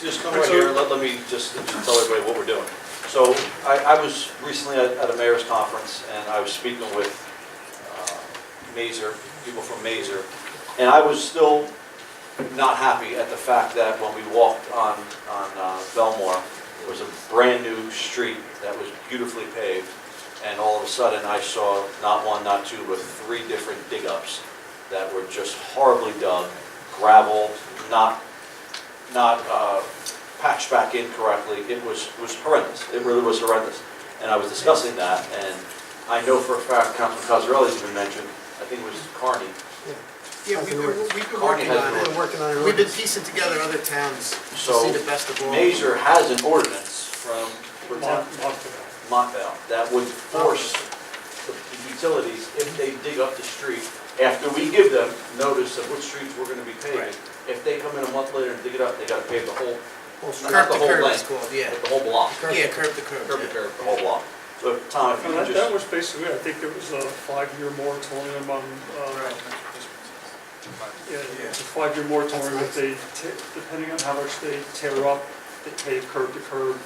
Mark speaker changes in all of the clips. Speaker 1: just come right here, and let, let me just just tell everybody what we're doing. So I, I was recently at, at a mayor's conference, and I was speaking with uh, Mazer, people from Mazer, and I was still not happy at the fact that when we walked on, on uh, Belmore, it was a brand-new street that was beautifully paved, and all of a sudden, I saw not one, not two, but three different dig-ups that were just horribly dug, gravel, not not uh, patched back in correctly. It was, was horrendous. It really was horrendous. And I was discussing that, and I know for a fact, Councilman Cosarelli's been mentioned, I think it was Carney.
Speaker 2: Yeah, we've been, we've been
Speaker 1: Carney
Speaker 2: working
Speaker 1: has
Speaker 2: on
Speaker 1: been
Speaker 2: it.
Speaker 3: working on
Speaker 2: We've been piecing together other towns to
Speaker 1: So,
Speaker 2: see the best of all.
Speaker 1: Mazer has an ordinance from
Speaker 4: Mon- Montvale.
Speaker 1: Montvale that would force the the utilities, if they dig up the street, after we give them notice of which streets we're gonna be paving,
Speaker 2: Right.
Speaker 1: if they come in a month later and dig it up, they gotta pave the whole, not
Speaker 2: Curb
Speaker 1: the
Speaker 2: to
Speaker 1: whole
Speaker 2: curb is
Speaker 1: length,
Speaker 2: called, yeah.
Speaker 1: but the whole block.
Speaker 2: Yeah, curb to curb.
Speaker 1: curb to
Speaker 2: yeah.
Speaker 1: curb, the whole block. So Tom, if you
Speaker 4: And
Speaker 1: could
Speaker 4: that, that
Speaker 1: just,
Speaker 4: was basically, I think there was a five-year moratorium on, uh,
Speaker 2: Right.
Speaker 4: yeah, it's a five-year moratorium if they, ta- depending on how much they tear up, they pave curb to curb.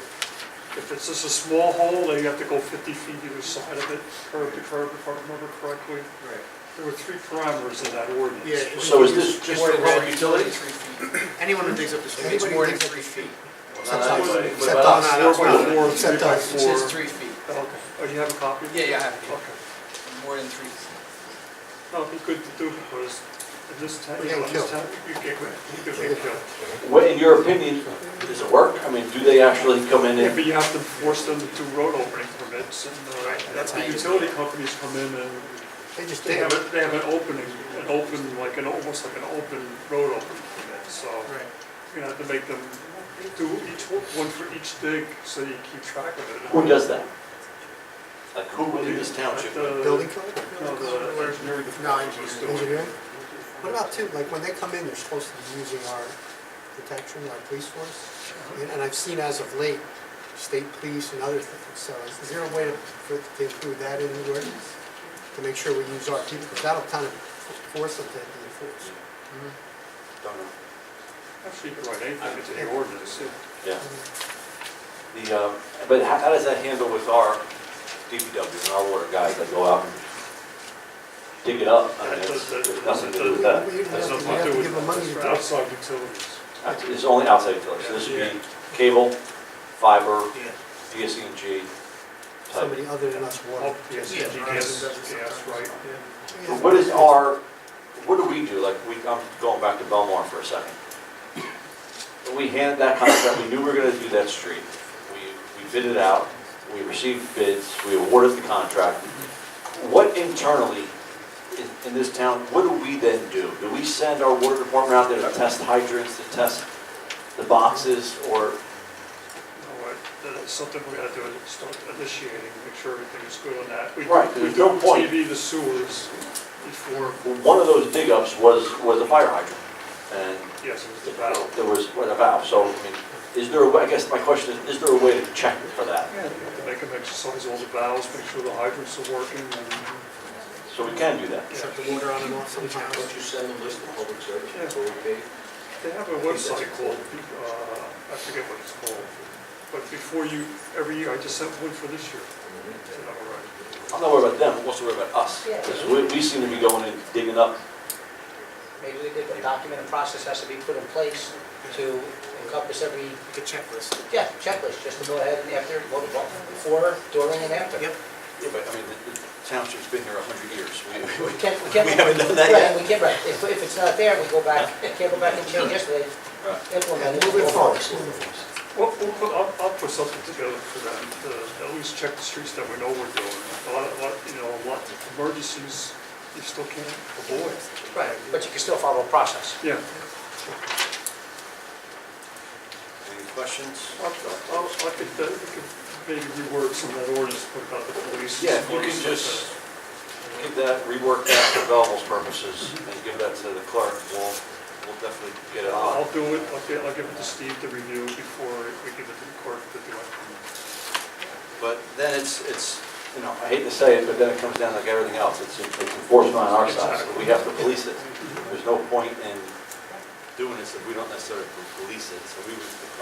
Speaker 4: If it's just a small hole, they have to go fifty feet either side of it, curb to curb, if I remember correctly. There were three parameters in that ordinance.
Speaker 2: Yeah, it was-
Speaker 1: so is this just for
Speaker 2: Water
Speaker 1: public
Speaker 2: rate.
Speaker 1: utilities?
Speaker 2: Anyone who digs up the street.
Speaker 3: It's more than
Speaker 2: three feet.
Speaker 1: Not
Speaker 4: Except
Speaker 1: anybody, but uh,
Speaker 4: us.
Speaker 3: Except
Speaker 1: about
Speaker 2: No,
Speaker 3: us.
Speaker 2: no,
Speaker 4: Four
Speaker 2: that's
Speaker 4: by
Speaker 2: not.
Speaker 4: four, three
Speaker 3: Except
Speaker 4: by
Speaker 3: us.
Speaker 4: four.
Speaker 3: It
Speaker 2: Says three feet.
Speaker 4: Okay, oh, you have a copy?
Speaker 3: Yeah, yeah, I have it.
Speaker 4: Okay.
Speaker 3: More than three feet.
Speaker 4: No, it'd be good to do because in this town, you
Speaker 3: We're
Speaker 4: know, in
Speaker 3: getting
Speaker 4: this
Speaker 3: killed.
Speaker 4: town, you get, you could get killed.
Speaker 1: What, in your opinion, does it work? I mean, do they actually come in
Speaker 4: Yeah,
Speaker 1: and,
Speaker 4: but you have to force them to do road opening permits, and uh,
Speaker 2: that's how
Speaker 4: the
Speaker 2: you-
Speaker 4: utility companies come in and
Speaker 3: They just
Speaker 4: they
Speaker 3: did.
Speaker 4: have, a- they have an opening, an open, like an, almost like an open road opening permit, so
Speaker 2: Right.
Speaker 4: you're gonna have to make them do each, one one for each dig, so you keep track of it.
Speaker 1: who does that? Like, who in this township?
Speaker 4: The-
Speaker 3: Building code?
Speaker 4: No, the engineering
Speaker 2: No,
Speaker 4: department was doing it.
Speaker 3: Engineering? What about too, like when they come in, they're supposed to be using our detection, our police force? And- And I've seen as of late, state police and other things, so is is there a way to, for, to include that in the ordinance? To make sure we use our people, because that'll kind of force them to be enforced.
Speaker 1: Don't know.
Speaker 4: Actually, you could write anything into the ordinance, yeah.
Speaker 1: Yeah. The, uh, but how, how does that handle with our DPW and our water guys that go out and dig it up? I mean, it's, there's nothing to do with that.
Speaker 3: We
Speaker 4: That's
Speaker 3: have to-
Speaker 4: not what I'm
Speaker 3: we have to
Speaker 4: doing.
Speaker 3: give them money to
Speaker 4: It's for
Speaker 3: do it.
Speaker 4: outside utilities.
Speaker 1: It's only outside utilities, so this would be cable, fiber, E DSNG type.
Speaker 3: Somebody other than us water.
Speaker 4: Oh, yes,
Speaker 2: Yeah,
Speaker 4: yes,
Speaker 2: right.
Speaker 4: yes, yes, right.
Speaker 1: But What is our, what do we do, like, we, I'm going back to Belmar for a second. We handed that contract, we knew we were gonna do that street, we, we bid it out, we received bids, we awarded the contract. What internally in, in this town, what do we then do? Do we send our water department out there to test hydrants, to test the boxes, or,
Speaker 4: All right, that is something we gotta do, is start initiating, make sure everything is good on that. We-
Speaker 1: Right,
Speaker 4: We
Speaker 1: there's
Speaker 4: do
Speaker 1: no point.
Speaker 4: TV the sewers before,
Speaker 1: one of those dig ups was, was a fire hydrant, and
Speaker 4: yes, it was the battle.
Speaker 1: There was, what, a valve, so, I mean, is there a way, I guess my question is, is there a way to check for that?
Speaker 4: Yeah, we have to make them exercise all the valves, make sure the hydrants are working, and,
Speaker 1: So we can do that.
Speaker 2: Shut the water on and off sometimes.
Speaker 5: Don't you send a list of public services
Speaker 4: Yeah.
Speaker 5: before we pay?
Speaker 4: they have a website called, uh, I forget what it's called, but before you, every year, I just sent one for this year. Is that all right?
Speaker 1: I'm not worried about them, I'm also worried about us, because we, we seem to be going and digging up.
Speaker 6: Maybe we could, a document and process has to be put in place to encompass every,
Speaker 2: Like a checklist.
Speaker 6: yeah, checklist, just to go ahead and after, what- what- before, during, and after.
Speaker 2: Yep.
Speaker 1: Yeah, but I mean, the- the township's been here a hundred years. We- we-
Speaker 6: We can't, we can't.
Speaker 1: We haven't done that
Speaker 6: Right,
Speaker 1: yet.
Speaker 6: We can't, right, if, if it's not there, we go back, can't go back and change yesterday,
Speaker 1: Right.
Speaker 6: implement it.
Speaker 3: Moving
Speaker 6: go
Speaker 3: forward.
Speaker 4: Well, we'll put, I'll, I'll put something together for them, to at least check the streets that we know we're doing. A lot, a lot, you know, a lot of emergencies you still can't avoid.
Speaker 6: Right, but you can still follow a process.
Speaker 4: Yeah,
Speaker 5: Any questions?
Speaker 4: I'll, I'll, I could, uh, we could maybe reword some of that ordinance, put about the police.
Speaker 1: Yeah, if you can just give that, rework that for Belleville's purposes, and give that to the clerk, we'll, we'll definitely get it on.
Speaker 4: I'll do it, I'll, get- I'll give it to Steve to review before we give it to the court to do it.
Speaker 1: But then it's, it's, you know, I hate to say it, but then it comes down like everything else, it's it's enforcement on our side, so we have to police it. There's no point in doing this if we don't necessarily police it, so we would,